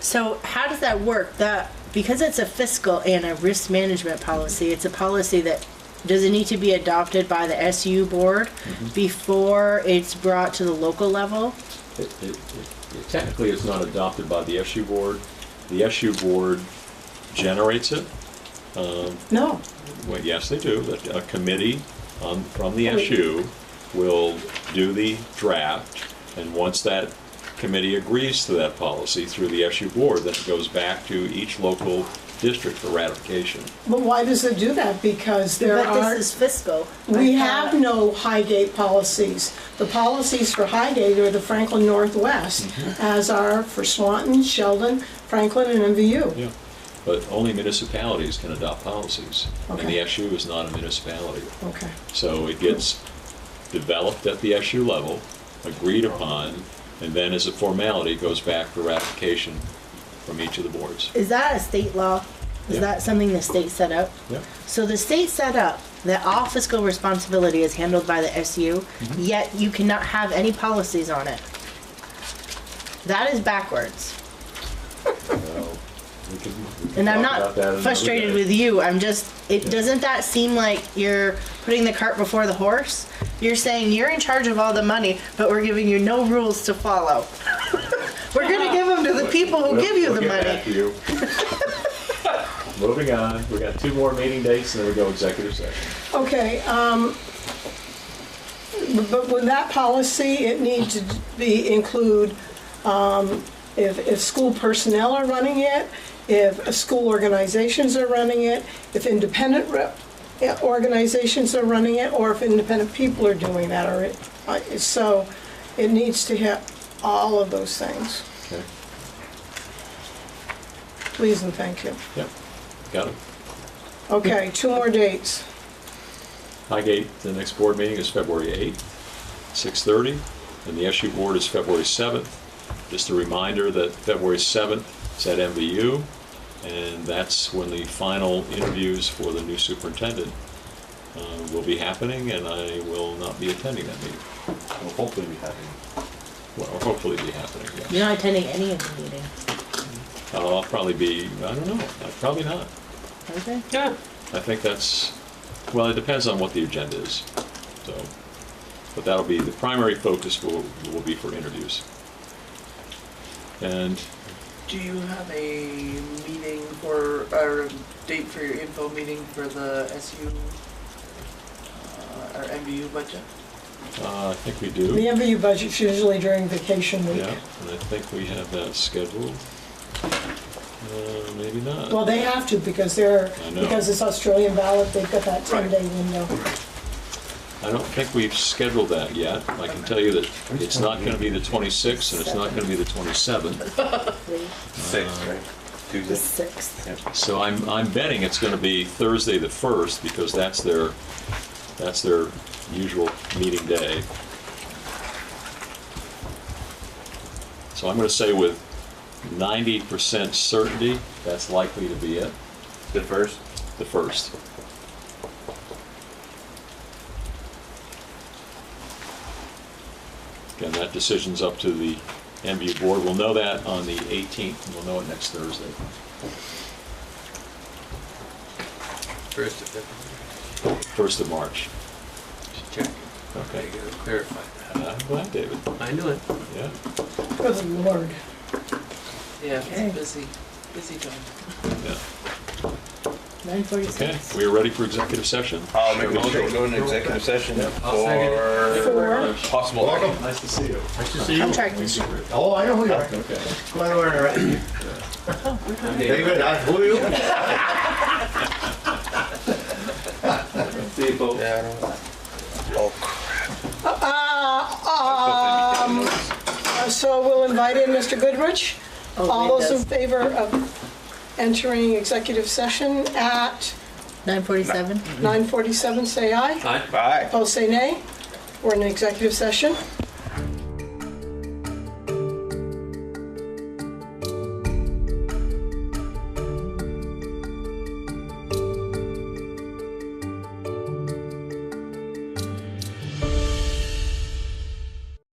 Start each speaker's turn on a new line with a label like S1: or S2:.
S1: So how does that work? That because it's a fiscal and a risk management policy, it's a policy that does it need to be adopted by the SU board before it's brought to the local level?
S2: It- it- it- Technically, it's not adopted by the SU board. The SU board generates it.
S1: No.
S2: Well, yes, they do. But A committee um, from the SU will do the draft, and once that committee agrees to that policy through the SU board, then it goes back to each local district for ratification.
S3: But why does it do that? Because there
S1: But
S3: are,
S1: this is uh, fiscal.
S3: we
S1: I
S3: have
S1: thought-
S3: no Highgate policies. The policies for Highgate are the Franklin Northwest, as are for Swanton, Sheldon, Franklin, and MVU.
S2: Yeah. But only municipalities can adopt policies, and the
S3: Okay.
S2: SU is not a municipality.
S3: Okay.
S2: So it gets developed at the SU level, agreed upon, and then as a formality, goes back for ratification from each of the boards.
S1: Is that a state law? Is
S2: Yeah.
S1: that something the state set up?
S2: Yeah.
S1: So the state set up that all fiscal responsibility is handled by the SU, yet you cannot have any policies on it. That is backwards.
S2: We can- we can
S1: And I'm
S2: talk about
S1: not
S2: that another
S1: frustrated
S2: day.
S1: with you. I'm just, it doesn't that seem like you're putting the cart before the horse? You're saying you're in charge of all the money, but we're giving you no rules to follow. we're going to give them to the people who
S2: We'll-
S1: give you the
S2: we'll get
S1: money.
S2: back to you. Moving on, we got two more meeting dates, and then we go executive session.
S3: Okay, um, but with that policy, it needs to be, include, um, if, if school personnel are running it, if school organizations are running it, if independent rep- yeah, organizations are running it, or if independent people are doing that, or, it- I- so it needs to hit all of those things.
S2: Okay.
S3: Please and thank you.
S2: Yep, got it.
S3: Okay, two more dates.
S2: Highgate, the next board meeting is February 8th, 6:30, and the SU board is February 7th. Just a reminder that February 7th is at MVU, and that's when the final interviews for the new superintendent uh, will be happening, and I will not be attending that meeting.
S4: Well, hopefully we have
S2: Well, hopefully be happening, yes.
S1: You're not attending any of the meetings,
S2: Uh, I'll probably be, I don't know, uh, probably not.
S1: okay?
S2: Yeah. I think that's, well, it depends on what the agenda is, so. But that'll be, the primary focus will, will be for interviews. And
S5: Do you have a meeting for, or a date for your info meeting for the SU uh, or MBU budget?
S2: uh, I think we
S3: The
S2: do,
S3: MVU budget's usually during vacation week.
S2: yeah, and I think we have that scheduled. Uh, Maybe not.
S3: Well, they have to because they're,
S2: I know.
S3: because it's Australian ballot, they've got that
S5: Right.
S3: 10-day window.
S2: I don't think we've scheduled that yet. I can tell you that it's not going to be the 26th, and it's not going to be the 27th.
S1: The
S4: six, right?
S1: the
S4: Tuesday.
S1: sixth.
S2: So I'm, I'm betting it's going to be Thursday the 1st, because that's their, that's their usual meeting day. So I'm going to say with 90% certainty, that's likely to be it,
S4: The first.
S2: the 1st. Again, that decision's up to the MBU board. We'll know that on the 18th, and we'll know it next Thursday.
S4: First of February.
S2: 1st of March.
S4: Just checking.
S2: Okay.
S4: I gotta clarify
S2: I'm glad, David.
S4: that. I knew it.
S2: Yeah.
S3: Good lord.
S5: Yeah,
S1: Okay.
S5: it's busy, busy time.
S2: yeah.
S1: Nine
S2: Okay,
S1: forty-six.
S2: we are ready for executive session.
S4: I'll make a motion to go into executive session
S6: I'll second
S4: for
S3: Four,
S4: possible action.
S6: Nice to see you. Nice to see
S1: Contract issue.
S6: Oh, I know who you are.
S2: Okay.
S6: Glad we're around. David, I, who are you?
S4: Yeah, I don't. Oh crap.
S3: um, so we'll invite in Mr. Goodrich.
S1: Oh,
S3: All
S1: it
S3: those in
S1: does.
S3: favor of entering executive session at
S1: Nine forty-seven.
S3: 9:47, say aye.
S4: Bye.
S3: Opposed, say nay. We're in executive session.